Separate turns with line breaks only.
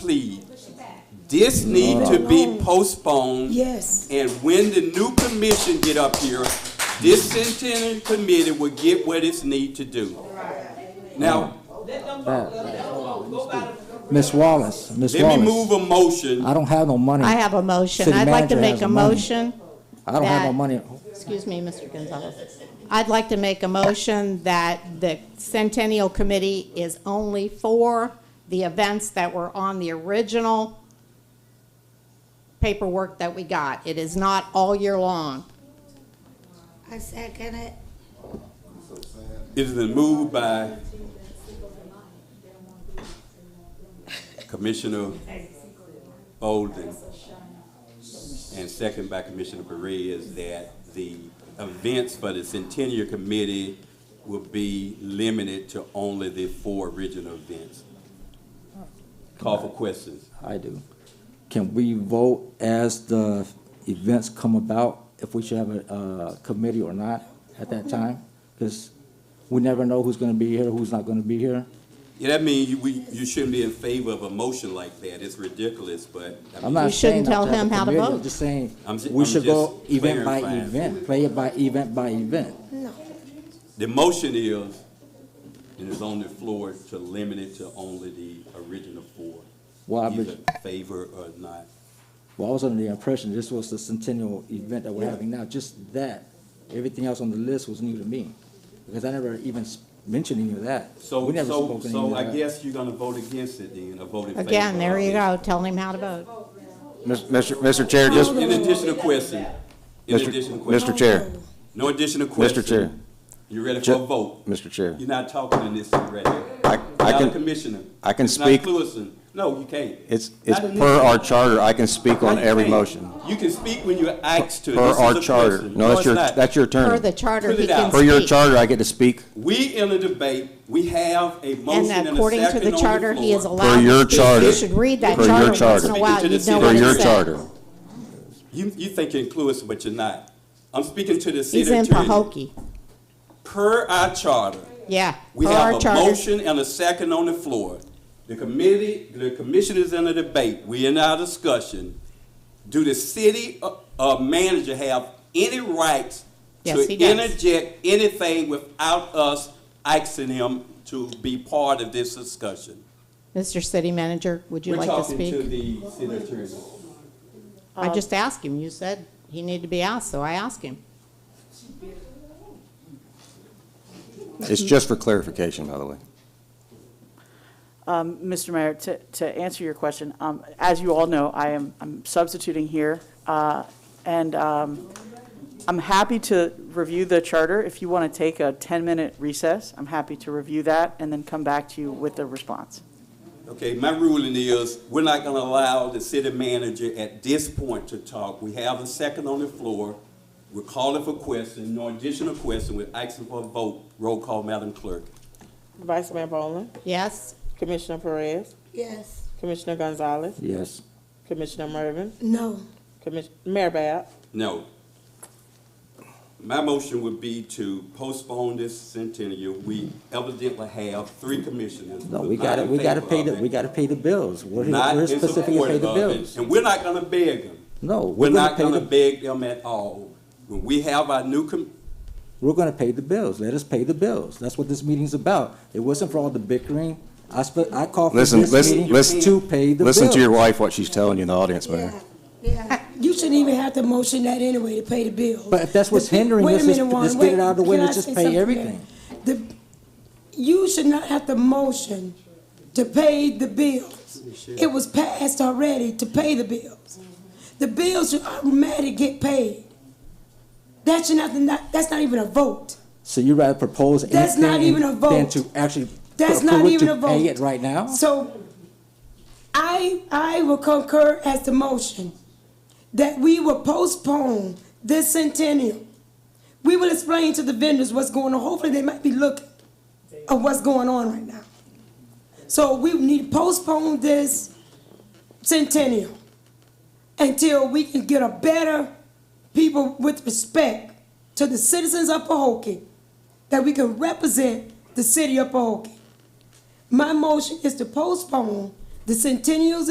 plead. This need to be postponed.
Yes.
And when the new commission get up here, this centennial committee will get what it's need to do. Now,
Miss Wallace, Miss
let me move
Wallace,
a motion.
I don't have no money.
I have a motion.
City
I'd like to
manager
make
has
a
money.
motion.
I don't have no
that-
money.
Excuse me, Mr. Gonzalez. I'd like to make a motion that the Centennial Committee is only for the events that were on the original paperwork that we got. It is not all year long.
I second it.
It has been moved by Commissioner Bolden and second by Commissioner Perez that the events for the Centennial Committee will be limited to only the four original events. Call for questions.
I do. Can we vote as the events come about, if we should have a, uh committee or not at
Mm-hmm.
that time? Because we never know who's gonna be here, who's not gonna be here.
Yeah, that means you, we, you shouldn't be in favor of a motion like that. It's ridiculous, but. I
I'm
mean,
not
We shouldn't
saying not
tell
to have
him
a
how to
committee,
vote.
I'm just saying,
I'm ju-
we
I'm
should go
just
event by
clarifying.
event, play it by event by event.
The motion is, and it's on the floor, to limit it to only the original four.
Well, I would-
Either favor or not.
Well, I was under the impression this was the centennial event that we're having now, just that. Everything else on the list was new to me, because I never even s- mentioned any of that.
So,
We never
so,
spoke any of
so I
that.
guess you're gonna vote against it then, or vote in favor.
Again, there
of
you
it.
go. Tell him how to vote.
Mis- Mr. Mr. Chair, just,
In additional question, in
Mr.
additional question.
Mr. Chair,
No additional question.
Chair.
You ready for
Ju-
a vote?
Mr. Chair,
You're not talking in this already.
I, I
Not a
can,
commissioner.
I can
It's not
speak-
Clueston. No, you can't.
it's, it's
Not in
per
this-
our charter, I can speak on
No, you
every
can't.
motion.
You can speak when you're asked to.
Per
This is
our
a
charter.
question.
No, that's
it's
your,
not.
that's your
Per the
turn.
charter,
Put it
he can
out.
speak.
Per your charter, I get to speak.
We in a debate, we have a motion
And
and a second
according to the
on
charter, he is
floor.
allowed
your
to speak.
charter.
You should read that
Per your
charter once
charter.
in a while.
Speaking to
You'd
the city.
know
Per
what
your
it
charter.
says.
You, you think you're inclusive, but you're not. I'm speaking to the city
He's in
attorney.
Pahokee.
Per our charter,
Yeah.
we
per our
have a
charter.
motion and a second on the floor. The committee, the commission is in a debate, we in our discussion. Do the city, uh, uh, manager have any rights
Yes,
to
he does.
interject anything without us asking him to be part of this discussion?
Mr. City Manager, would you like to speak?
We're talking to the city attorney.
I just asked him. You said he needed to be asked, so I asked him.
It's just for clarification, by the way.
Mr. Mayor, to, to answer your question, um, as you all know, I am, I'm substituting here, uh, and, um, I'm happy to review the charter. If you want to take a 10-minute recess, I'm happy to review that and then come back to you with a response.
Okay, my ruling is, we're not gonna allow the city manager at this point to talk. We have a second on the floor. We're calling for questions, no additional question. We're asking for a vote. Roll call, Madam Clerk.
Vice Mayor Boland,
Yes?
Commissioner Perez,
Yes.
Commissioner Gonzalez,
Yes.
Commissioner Mervin,
No.
Commis- Mayor Bab,
No. My motion would be to postpone this centennial. We evidently have three commissioners.
No,
who are
we
not
gotta,
in
we gotta
favor
pay
of
the,
it,
we gotta pay the bills. We're here-
Not
we're
in
specifically to
support
pay
of
the
it.
bills.
And we're not gonna beg them.
No,
We're
we're gonna
not
pay
gonna
the,
beg them at all. When we have our new com,
we're gonna pay the bills. Let us pay the bills. That's what this meeting's about. It wasn't for all the bickering. I sp- I called for
Listen,
this
listen,
meeting
listen-
to pay the bills.
Listen to your wife, what she's telling you in the audience, Mayor.
Yeah, yeah.
You shouldn't even have to motion that anyway to pay the bill.
But if that's what's hindering
Wait a
us, let's-
minute, Juan,
let's get it
wait.
out of the way.
Can I
Let's just
say
pay
something?
everything.
The, you should not have to motion to pay the bills. It was passed already to pay the bills. The bills should automatically get paid. That should not, not- that's not even a vote.
So you rather propose anything?
That's not even a
Than
vote.
to actually.
That's
for- for
not
it
even
to
a vote.
Pay it right now?
So I, I will concur as the motion that we will postpone this centennial. We will explain to the vendors what's going on. Hopefully, they might be looking at what's going on right now. So we need to postpone this centennial until we can get a better people with respect to the citizens of Pahokee, that we can represent the city of Pahokee. My motion is to postpone The Centennial's